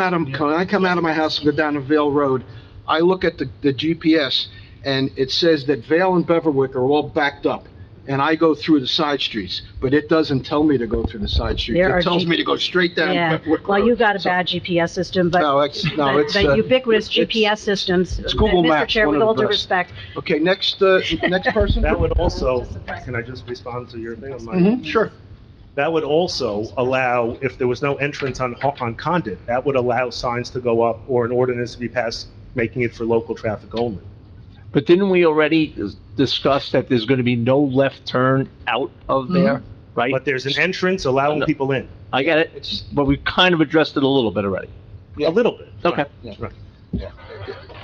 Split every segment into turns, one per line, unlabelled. Adam, Cohen, I come out of my house and go down to Vale Road, I look at the, the GPS, and it says that Vale and Beverwick are all backed up, and I go through the side streets, but it doesn't tell me to go through the side streets.
There are
It tells
G-
me to go straight down
Yeah,
Beverwick Road.
well, you got a
So-
bad GPS system, but,
No, it's, no,
but
it's,
but
uh,
ubiquitous
it's-
GPS systems.
it's Google
Mr.
Maps,
Chair,
one
with
of
all
the
due
best.
respect,
okay, next, uh, next person?
That would also,
Surprise.
can I just respond to your thing? Mike?
Mhm, sure.
That would also allow, if there was no entrance on, Ho- on Condit, that would allow signs to go up or an ordinance to be passed making it for local traffic only.
But didn't we already discuss that there's gonna be no left turn out of there, right?
But there's an entrance allowing people in,
I get it, but we kind of addressed it a little bit already.
Yeah.
a little bit.
Okay.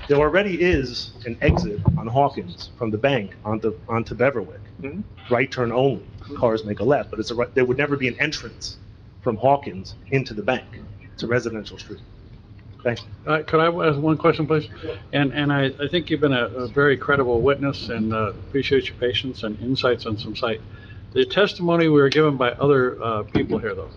There already is an exit on Hawkins from the bank onto, onto Beverwick.
Mm-hmm.
Mhm.
Right turn only, cars make a left, but it's a, right- there would never be an entrance from Hawkins into the bank. It's a residential street.
Uh, Could I ask one question, please? And, and I, I think you've been a, a very credible witness and uh, appreciate your patience and insights on some site. The testimony we were given by other uh, people here, though,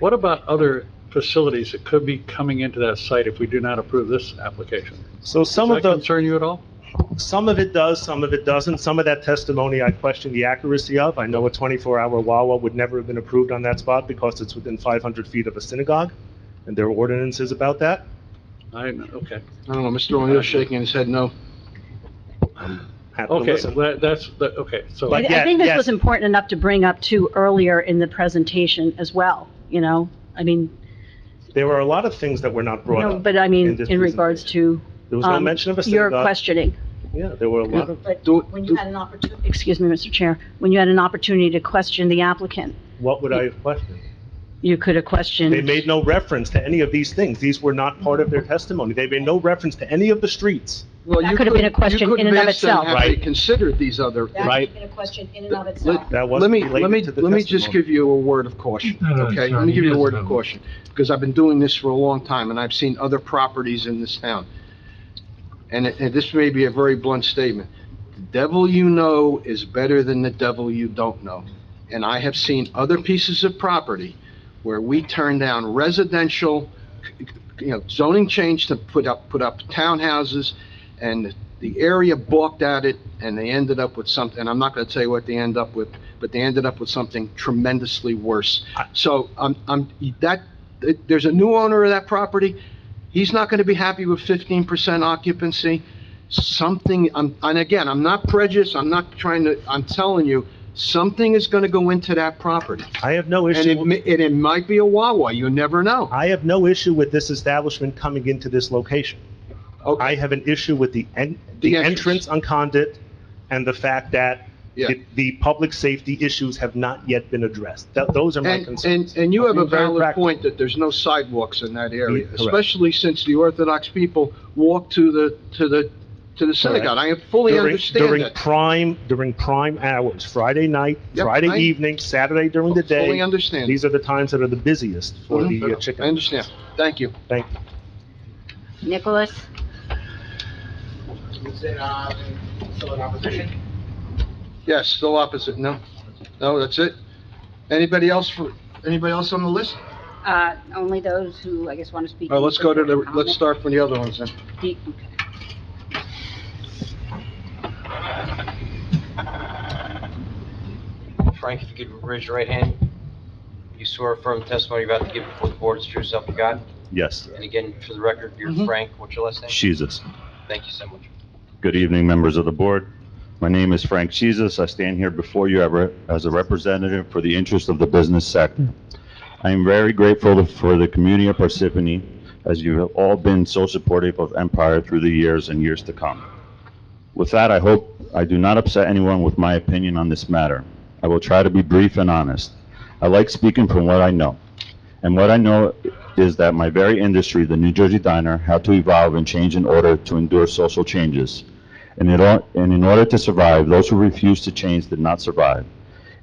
what about other facilities that could be coming into that site if we do not approve this application?
So
Does
some
that
of the.
concern you at all?
Some of it does, some of it doesn't. Some of that testimony I question the accuracy of. I know a 24-hour Wawa would never have been approved on that spot because it's within 500 feet of a synagogue, and there are ordinances about that.
I, okay,
I don't know, Mr. O'Neill's shaking his head no.
Happy to
okay,
listen.
that- that's, that- okay, so.
I
But
I
yet-
think this
yes.
was important enough to bring up too earlier in the presentation as well, you know? I mean,
There were a lot of things that were not brought
no,
up.
but I
in
mean,
this
in regards to,
There was no
um,
mention of a
your
synagogue.
questioning.
Yeah, there were a lot of,
Do-
When you
do-
had an opportunity, excuse me, Mr. Chair, when you had an opportunity to question the applicant,
what would I have questioned?
you could have questioned.
They made no reference to any of these things. These were not part of their testimony. They made no reference to any of the streets.
Well,
That
you
could have been a
couldn't- you
question
couldn't
in and of
ask them
itself.
Have they
Right.
considered these other?
Right.
a question in
and of itself.
That was
Let me, let me,
related to the
let me just
testimony.
give you a word of caution,
No, no,
okay?
John,
Let me
he
give you a word
doesn't
of
know.
caution, because I've been doing this for a long time, and I've seen other properties in this town. And, it- and this may be a very blunt statement. The devil you know is better than the devil you don't know. And I have seen other pieces of property where we turn down residential, you know, zoning change to put up, put up townhouses, and the area balked at it, and they ended up with something, and I'm not gonna tell you what they end up with, but they ended up with something tremendously worse. So, I'm, I'm, that, there's a new owner of that property, he's not gonna be happy with fifteen percent occupancy. Something, I'm, and again, I'm not prejudiced, I'm not trying to, I'm telling you, something is gonna go into that property.
I have no
And
issue.
it, mi- and it might be a Wawa, you never know.
I have no issue with this establishment coming into this location.
Okay.
I have an issue with the en,
The
the
entrance.
entrance on Condit and the fact that
Yeah.
it- the public safety issues have not yet been addressed. That, those are my
And,
concerns.
and, and you have a
Being very
valid
practical.
point that there's no sidewalks in that area,
Correct.
especially since the Orthodox people walk to the, to the, to the synagogue. I fully
During-
understand
During
that.
prime, during prime hours, Friday night,
Yep, I-
Friday evening, Saturday during the
Fully
day.
understand.
These are the times that are the busiest for the uh,
Mhm.
chicken.
I understand. Thank you.
Thank you.
Nicholas?
Is it, uh, still in opposition?
Yes, still opposite. No, no, that's it. Anybody else for, anybody else on the list?
Uh, only those who, I guess, want to speak.
All right, let's go to the, let's start from the other ones then.
The-
Frank, if you could raise your right hand. You swear affirm the testimony you're about to give before the board is true self you got?
Yes,
And again, for the record, you're
Mhm.
Frank, what's your last name?
Jesus.
Thank you so much.
Good evening, members of the board. My name is Frank Jesus. I stand here before you ever- as a representative for the interest of the business sector. I am very grateful for the community of Parsippany, as you have all been so supportive of Empire through the years and years to come. With that, I hope I do not upset anyone with my opinion on this matter. I will try to be brief and honest. I like speaking from what I know. And what I know is that my very industry, the New Jersey diner, had to evolve and change in order to endure social changes. And in, or- and in order to survive, those who refused to change did not survive.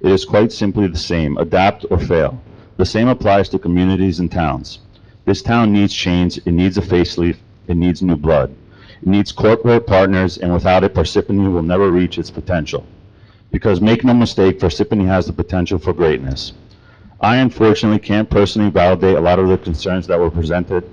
It is quite simply the same, adapt or fail. The same applies to communities and towns. This town needs change, it needs a facelift, it needs new blood. It needs corporate partners, and without it, Parsippany will never reach its potential. Because make no mistake, Parsippany has the potential for greatness. I unfortunately can't personally validate a lot of the concerns that were presented